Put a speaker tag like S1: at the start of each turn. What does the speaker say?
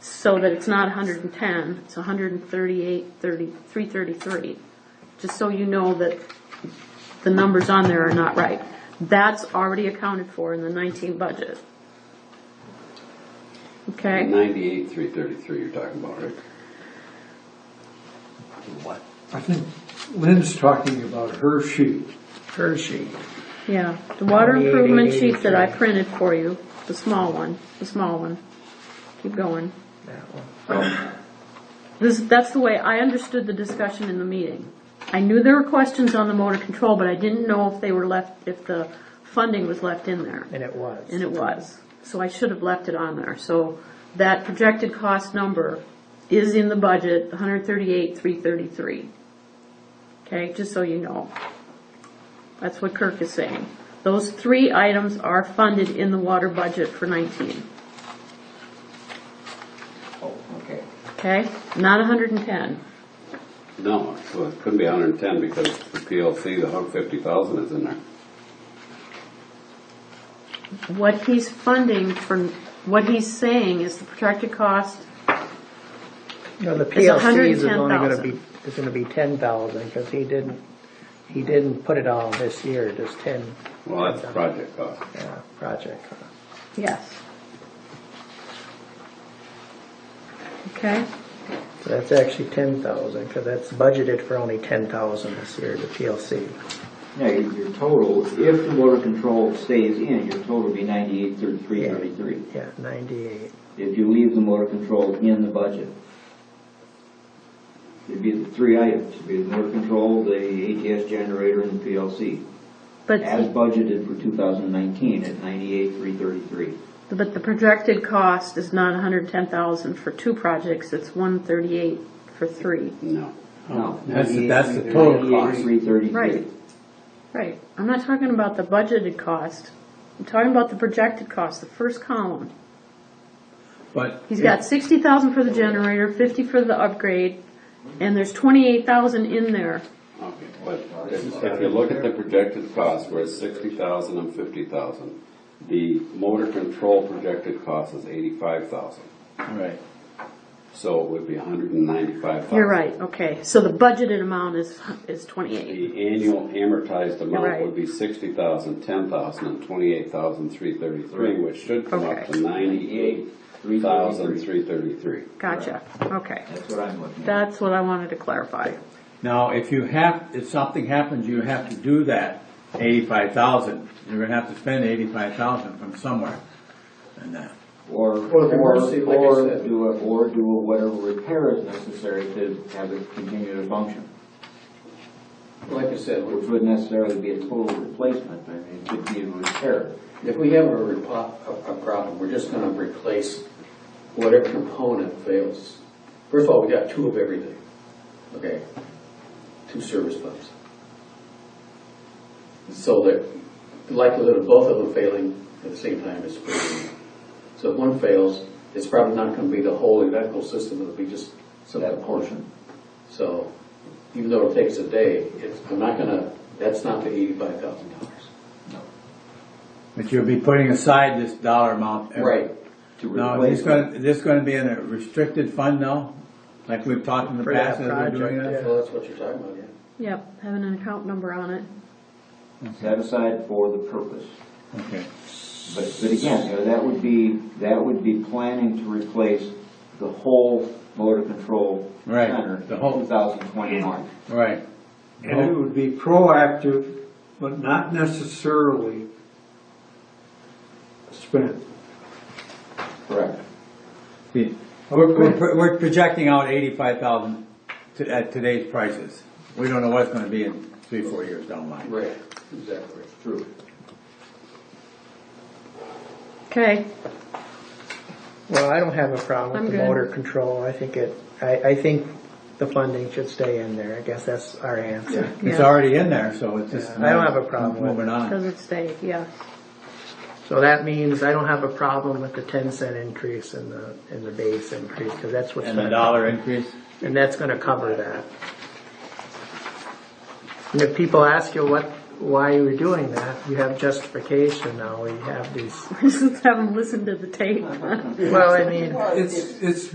S1: so that it's not hundred and ten, it's 138, hundred and thirty-eight, thirty, three thirty-three. Just so you know that the numbers on there are not right. That's already accounted for in the nineteen budget. Okay,
S2: Ninety-eight, three thirty-three you're talking about, Rick?
S3: What?
S4: I think Lynn's talking about her sheet.
S3: Hershey.
S1: yeah, the water improvement sheet that I printed for you, the small one, the small one. Keep going.
S3: That one.
S1: This, that's the way I understood the discussion in the meeting. I knew there were questions on the motor control, but I didn't know if they were left, if the funding was left in there.
S3: And it was.
S1: And it was. So I should have left it on there. So that projected cost number is in the budget, 138, 333. Okay, just so you know. That's what Kirk is saying. Those three items are funded in the water budget for 19,
S3: Oh, okay.
S1: okay? Not 110.
S2: No, so it couldn't be hundred and ten because the PLC, the hundred fifty thousand is in there.
S1: What he's funding for, what he's saying is the projected cost,
S3: No, the
S1: It's
S3: PLCs is only gonna
S1: 110,000.
S3: be, is gonna be ten thousand, because he didn't, he didn't put it all this year, just ten.
S2: Well, that's the project cost.
S3: Yeah, project.
S1: yes. Okay?
S3: So that's actually ten thousand, because that's budgeted for only ten thousand this year, the PLC.
S5: Yeah, your your total, if the motor control stays in, your total would be ninety-eight, thirty-three,
S3: Yeah.
S5: thirty-three.
S3: Yeah, ninety-eight.
S5: If you leave the motor control in the budget, it'd be the three items, it'd be the motor control, the ATS generator, and the PLC. As
S1: But,
S5: budgeted for two thousand nineteen at ninety-eight, three thirty-three.
S1: but the projected cost is not 110,000 for two projects, it's 138 for three.
S2: No.
S4: Oh,
S5: No.
S4: That's the- that's the total cost.
S5: Ninety-eight, three thirty-three.
S1: Right. Right. I'm not talking about the budgeted cost. I'm talking about the projected cost, the first column.
S4: But
S1: He's got sixty thousand for the generator, fifty for the upgrade, and there's twenty-eight thousand in there.
S2: Okay, but if if you look at the projected cost, where it's sixty thousand and fifty thousand, the motor control projected cost is eighty-five thousand.
S6: Right.
S2: So it would be hundred and ninety-five thousand.
S1: You're right, okay. So the budgeted amount is, is twenty-eight.
S2: The annual amortized amount
S1: Right.
S2: would be sixty thousand, ten thousand, and twenty-eight thousand, three thirty-three, which should come up
S1: Okay.
S2: to ninety-eight thousand, three thirty-three.
S1: Gotcha, okay.
S5: That's what I'm looking at.
S1: That's what I wanted to clarify.
S6: Now, if you have, if something happens, you have to do that eighty-five thousand. You're gonna have to spend eighty-five thousand from somewhere. And uh, that,
S5: Or,
S3: Or the
S5: or,
S3: emergency, like I
S5: or
S3: said.
S5: do, a- or do a whatever repair is necessary to have it continue to function.
S7: Like I said,
S5: Which wouldn't necessarily be a total replacement, but it could be a repair.
S7: if we have a, repo- a a problem, we're just gonna replace whatever component fails. First of all, we got two of everything, okay? Two service pumps. So the likelihood of both of them failing at the same time is pretty low. So if one fails, it's probably not gonna be the whole electrical system, it'll be just some
S5: That portion.
S7: So even though it takes a day, it's, I'm not gonna, that's not the eighty-five thousand dollars.
S6: but you'll be putting aside this dollar amount. every-
S7: Right.
S5: to
S6: Now,
S5: replace
S6: is this gonna, is this gonna be in a restricted fund now? Like we've talked in the
S3: For that
S6: past as we're doing
S3: project,
S6: this?
S7: Well, that's what you're talking about, yeah.
S1: Yep, having an account number on it.
S5: it, Set aside for the purpose.
S6: Okay.
S5: But, but again, you know, that would be, that would be planning to replace the whole motor control
S6: Right,
S5: center in
S6: the whole-
S5: 2021.
S6: Right.
S4: And it would be proactive, but not necessarily spent.
S5: Correct.
S6: We're, we're, we're projecting out eighty-five thousand to, at today's prices. We don't know what it's gonna be in three, four years down the line.
S7: Right, exactly.
S5: True.
S1: Okay,
S3: Well, I don't have a problem
S1: I'm
S3: with the
S1: good.
S3: motor control. I think it, I, I think the funding should stay in there. I guess that's our answer.
S6: It's
S1: Yeah.
S6: already in there, so it's just.
S3: Yeah, I don't have a problem with it.
S6: Moving on.
S1: doesn't stay, yeah.
S3: So that means I don't have a problem with the ten cent increase in the, in the base increase, because that's what's
S6: And the
S3: gonna.
S6: dollar increase?
S3: And that's gonna cover that. And if people ask you what, why you were doing that, you have justification now, you have these,
S1: Just haven't listened to the tape.
S3: well, I mean.
S4: It's, it's